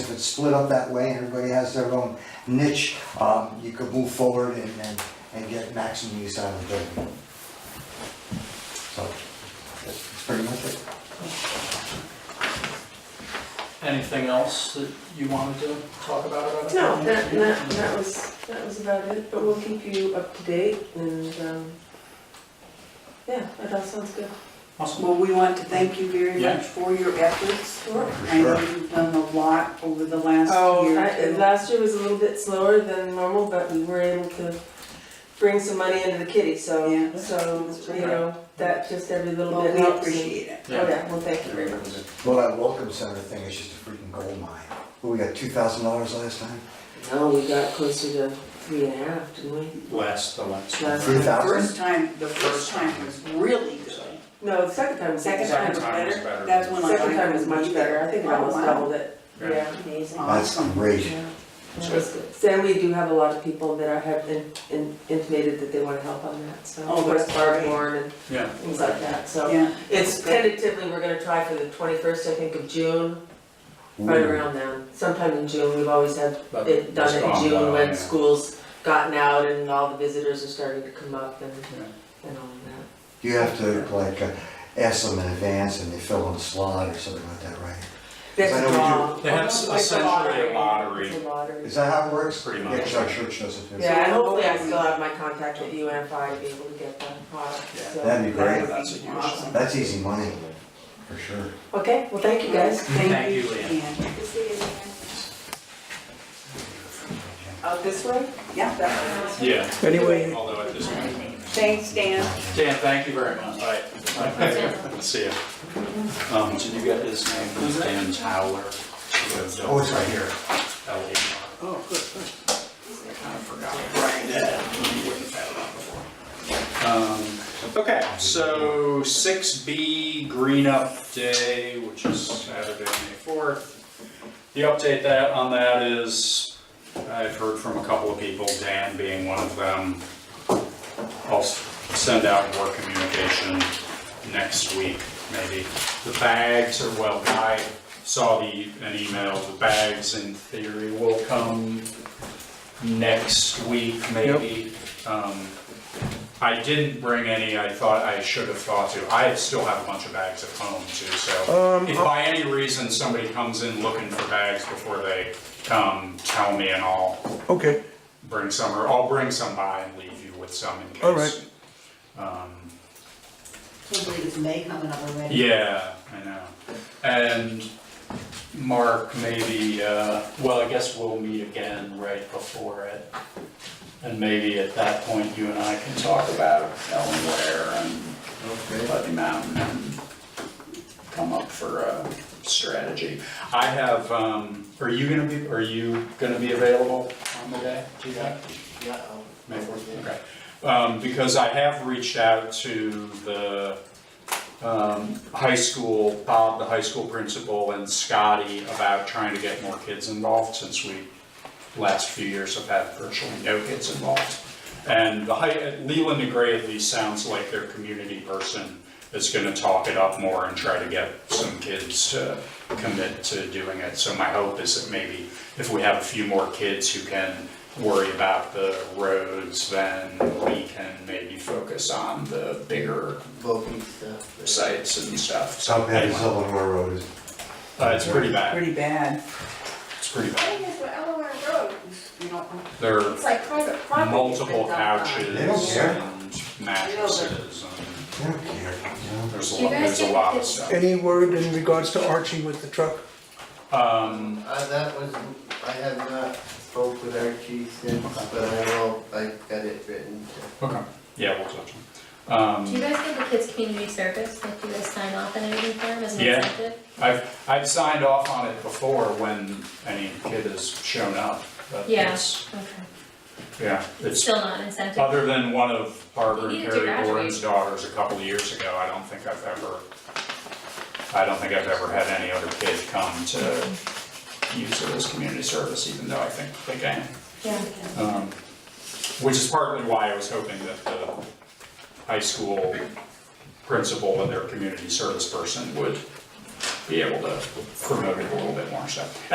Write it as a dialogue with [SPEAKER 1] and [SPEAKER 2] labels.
[SPEAKER 1] it's split up that way, and everybody has their own niche, um, you could move forward and, and, and get maximum use out of the building. So, that's pretty much it.
[SPEAKER 2] Anything else that you wanted to talk about about it?
[SPEAKER 3] No, that, that, that was, that was about it, but we'll keep you up to date and, um, yeah, that all sounds good.
[SPEAKER 2] Awesome.
[SPEAKER 4] Well, we want to thank you very
[SPEAKER 2] Yeah.
[SPEAKER 4] much for your efforts.
[SPEAKER 3] Sure.
[SPEAKER 4] I know you've done a lot over the last
[SPEAKER 3] Oh,
[SPEAKER 4] year.
[SPEAKER 3] I-
[SPEAKER 4] too.
[SPEAKER 3] last year was a little bit slower than normal, but we were able to bring some money into the kitty, so,
[SPEAKER 4] Yeah.
[SPEAKER 3] so, you know, that just every little
[SPEAKER 4] Well,
[SPEAKER 3] bit
[SPEAKER 4] we
[SPEAKER 3] helps. and-
[SPEAKER 4] appreciate it.
[SPEAKER 3] Oh, yeah, well, thank you very much.
[SPEAKER 1] Well, that welcome center thing is just a freaking gold mine. What, we got two thousand dollars last time?
[SPEAKER 3] No, we got closer to three and a half, didn't we?
[SPEAKER 2] Last, the last. one.
[SPEAKER 3] Last-
[SPEAKER 1] Three
[SPEAKER 4] The
[SPEAKER 1] thousand?
[SPEAKER 4] first time, the first time was really good.
[SPEAKER 3] No, the second time. was
[SPEAKER 4] Second
[SPEAKER 3] better.
[SPEAKER 4] time was
[SPEAKER 5] time was
[SPEAKER 4] better,
[SPEAKER 5] better.
[SPEAKER 4] that's when I.
[SPEAKER 3] Second time was much better, I think I almost doubled it,
[SPEAKER 5] Yeah.
[SPEAKER 3] yeah.
[SPEAKER 1] That's
[SPEAKER 4] Awesome.
[SPEAKER 1] great.
[SPEAKER 3] That was good. Sam, we do have a lot of people that are, have in- in- intimated that they want to help on that, so.
[SPEAKER 4] Oh, that's
[SPEAKER 3] West Barbourne and
[SPEAKER 2] Yeah.
[SPEAKER 3] things like that, so.
[SPEAKER 4] Yeah.
[SPEAKER 3] It's tentatively, we're gonna try for the twenty-first, I think, of June, right
[SPEAKER 1] Ooh.
[SPEAKER 3] around then, sometime in June, we've always had
[SPEAKER 2] but
[SPEAKER 3] it done
[SPEAKER 2] it's gone
[SPEAKER 3] in June
[SPEAKER 2] well,
[SPEAKER 3] when
[SPEAKER 2] Oh, yeah.
[SPEAKER 3] schools gotten out and all the visitors are starting to come up and, and all of that.
[SPEAKER 1] You have to like uh, ask them in advance and they fill in a slot or something like that, right?
[SPEAKER 3] That's
[SPEAKER 1] I know we
[SPEAKER 3] a
[SPEAKER 1] do-
[SPEAKER 3] draw.
[SPEAKER 2] They have
[SPEAKER 3] Almost like a
[SPEAKER 2] essentially a
[SPEAKER 5] lottery.
[SPEAKER 3] It's a lottery.
[SPEAKER 1] Is that how it works?
[SPEAKER 5] Pretty
[SPEAKER 1] Yeah,
[SPEAKER 5] much.
[SPEAKER 1] 'cause our church does it too.
[SPEAKER 3] Yeah, and hopefully I still have my contact with UNFI to be able to get that product,
[SPEAKER 2] Yeah.
[SPEAKER 3] so.
[SPEAKER 1] That'd be great.
[SPEAKER 2] That's a huge-
[SPEAKER 4] Awesome.
[SPEAKER 1] That's easy money, for sure.
[SPEAKER 3] Okay, well, thank you guys.
[SPEAKER 2] Thank you, Leanne.
[SPEAKER 4] Leanne.
[SPEAKER 3] Out Oh, this way?
[SPEAKER 4] Yeah, that was-
[SPEAKER 2] Yeah,
[SPEAKER 6] Anyway,
[SPEAKER 5] Although at this point,
[SPEAKER 4] thanks, Dan.
[SPEAKER 2] Dan, thank you very much. Alright. See ya. Um, did you get his name? Who's Dan Towler.
[SPEAKER 1] Oh, it's right here.
[SPEAKER 5] L A R.
[SPEAKER 6] oh, good, good.
[SPEAKER 5] Oh, Um, Okay, so six B Green Up Day, which is Saturday, May fourth. The update that, on that is, I've heard from a couple of people, Dan being one of them. I'll s- send out more communication next week, maybe. The bags are, well, I saw the, an email, the bags in theory will come next week, maybe. Um, I didn't bring any, I thought I should have thought to. I still have a bunch of bags at home too, so
[SPEAKER 6] Um,
[SPEAKER 5] if by any reason somebody comes in looking for bags before they come, tell me and I'll
[SPEAKER 6] Okay,
[SPEAKER 5] bring some, or I'll bring some by and leave you with some in case.
[SPEAKER 6] All right.
[SPEAKER 5] Um,
[SPEAKER 7] Can't believe it's May coming up already.
[SPEAKER 5] yeah, I know. And Mark, maybe, uh, well, I guess we'll meet again right before it. And maybe at that point, you and I can talk about Ellenware and Buddy Mountain and come up for a strategy. I have, um, are you gonna be, are you gonna be available on the day? Do you have? May fourth, okay. Um, because I have reached out to the, um, high school, Bob, the high school principal, and Scotty about trying to get more kids involved since we, last few years have had virtually no kids involved. And the high, Leland DeGray at least sounds like their community person is gonna talk it up more and try to get some kids to commit to doing it. So my hope is that maybe if we have a few more kids who can worry about the roads, then we can maybe focus on the bigger sites and stuff. So
[SPEAKER 1] South Bend is
[SPEAKER 5] anyway,
[SPEAKER 1] Illinois Road is
[SPEAKER 5] uh, it's pretty bad.
[SPEAKER 4] Pretty bad.
[SPEAKER 5] It's pretty bad.
[SPEAKER 7] Thing is, with Delaware Road, you know,
[SPEAKER 5] There are
[SPEAKER 7] it's like private property.
[SPEAKER 5] multiple couches
[SPEAKER 1] They don't care.
[SPEAKER 5] and mattresses. and
[SPEAKER 1] They don't care, you know?
[SPEAKER 5] There's a
[SPEAKER 7] Do you
[SPEAKER 5] lot,
[SPEAKER 7] guys
[SPEAKER 5] there's a
[SPEAKER 7] think
[SPEAKER 5] lot of
[SPEAKER 7] it's-
[SPEAKER 5] stuff.
[SPEAKER 6] any word in regards to Archie with the truck?
[SPEAKER 5] Um,
[SPEAKER 8] Uh, that was, I have not spoke with Archie since, but I will, I got it written.
[SPEAKER 5] okay, yeah, we'll touch on.
[SPEAKER 9] Do you
[SPEAKER 5] Um,
[SPEAKER 9] guys give the kids community service, like do you guys sign off on anything for them as an
[SPEAKER 5] Yeah.
[SPEAKER 9] incentive?
[SPEAKER 5] I've, I've signed off on it before when any kid has shown up, but
[SPEAKER 9] Yeah.
[SPEAKER 5] it's,
[SPEAKER 9] Okay,
[SPEAKER 5] yeah,
[SPEAKER 9] it's
[SPEAKER 5] it's,
[SPEAKER 9] still not an incentive,
[SPEAKER 5] other than one of Barbara
[SPEAKER 9] You
[SPEAKER 5] and
[SPEAKER 9] need to
[SPEAKER 5] Perry
[SPEAKER 9] graduate.
[SPEAKER 5] Gordon's daughters a couple of years ago, I don't think I've ever, I don't think I've ever had any other kid come to use it as community service, even though I think they can.
[SPEAKER 9] yeah.
[SPEAKER 5] Um, Which is partly why I was hoping that the high school principal and their community service person would be able to promote it a little bit more, so.